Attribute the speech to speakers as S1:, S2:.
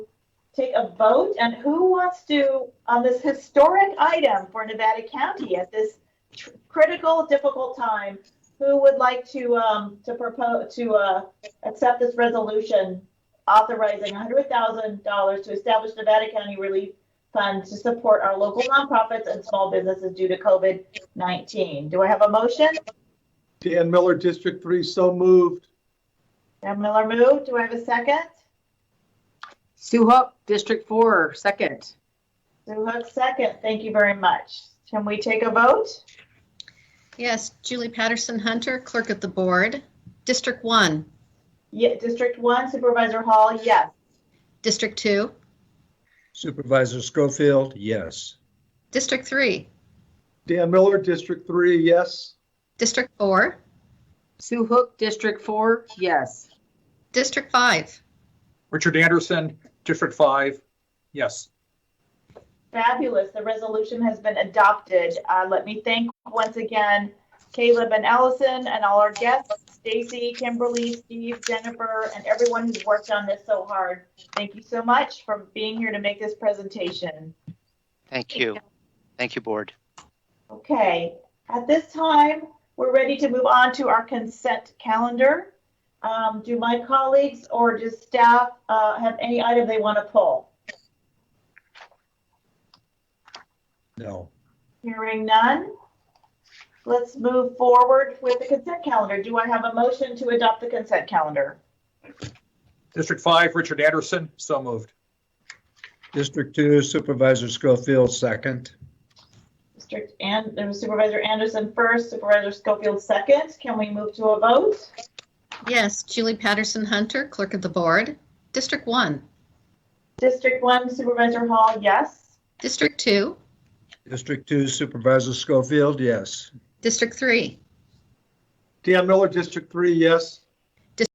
S1: take a vote, and who wants to, on this historic item for Nevada County at this tr- critical, difficult time, who would like to, um, to propose, to, uh, accept this resolution authorizing hundred thousand dollars to establish Nevada County Relief Fund to support our local nonprofits and small businesses due to COVID-19? Do I have a motion?
S2: Dan Miller, District 3, so moved.
S1: Dan Miller moved. Do I have a second?
S3: Sue Hook, District 4, second.
S1: Sue Hook, second. Thank you very much. Can we take a vote?
S4: Yes, Julie Patterson Hunter, Clerk of the Board. District 1,
S1: Yeah, District one Supervisor Hall, yes.
S4: District 2,
S5: Supervisor Schofield, yes.
S4: District 3,
S2: Dan Miller, District 3, yes.
S4: District 4,
S3: Sue Hook, District 4, yes.
S4: District 5,
S6: Richard Anderson, District 5, yes.
S1: Fabulous. The resolution has been adopted. Uh, let me thank once again Caleb and Allison and all our guests, Stacy, Kimberly, Steve, Jennifer, and everyone who's worked on this so hard. Thank you so much for being here to make this presentation.
S7: Thank you. Thank you, board.
S1: Okay, at this time, we're ready to move on to our consent calendar. Um, do my colleagues or does staff uh, have any item they want to pull?
S5: No.
S1: Hearing none. Let's move forward with the consent calendar. Do I have a motion to adopt the consent calendar?
S6: District 5, Richard Anderson, so moved.
S5: District 2, Supervisor Schofield, second.
S1: District and there was uh, Supervisor Anderson first, Supervisor Schofield second. Can we move to a vote?
S4: yes, Julie Patterson Hunter, Clerk of the Board. District 1,
S1: District one Supervisor Hall, yes.
S4: District 2,
S5: District 2, Supervisor Schofield, yes.
S4: District 3,
S2: Dan Miller, District 3, yes.